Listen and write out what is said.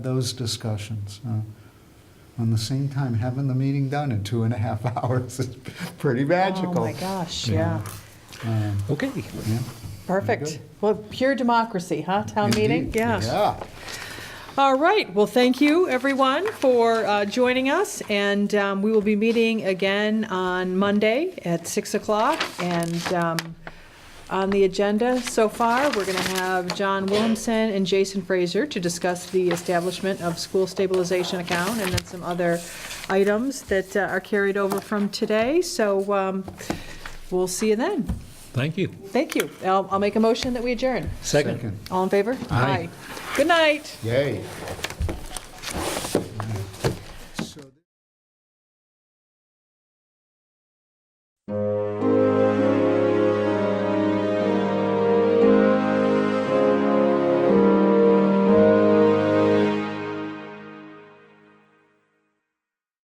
those discussions. uh, On the same time, having the meeting done in two and a half hours is pretty magical. Oh, my gosh, yeah. Um, Okay. yeah. Perfect. Good. Well, pure democracy, huh? Town meeting? Indeed. Yeah. Yeah. All right. Well, thank you, everyone, for uh, joining us. And um, we will be meeting again on Monday at 6 o'clock. And um, on the agenda so far, we're going to have John Williamson and Jason Fraser to discuss the establishment of school stabilization account and then some other items that uh, are carried over from today. So um, we'll see you then. Thank you. Thank you. I'll, I'll make a motion that we adjourn. Second. All in favor? Aye. Good night. Yay.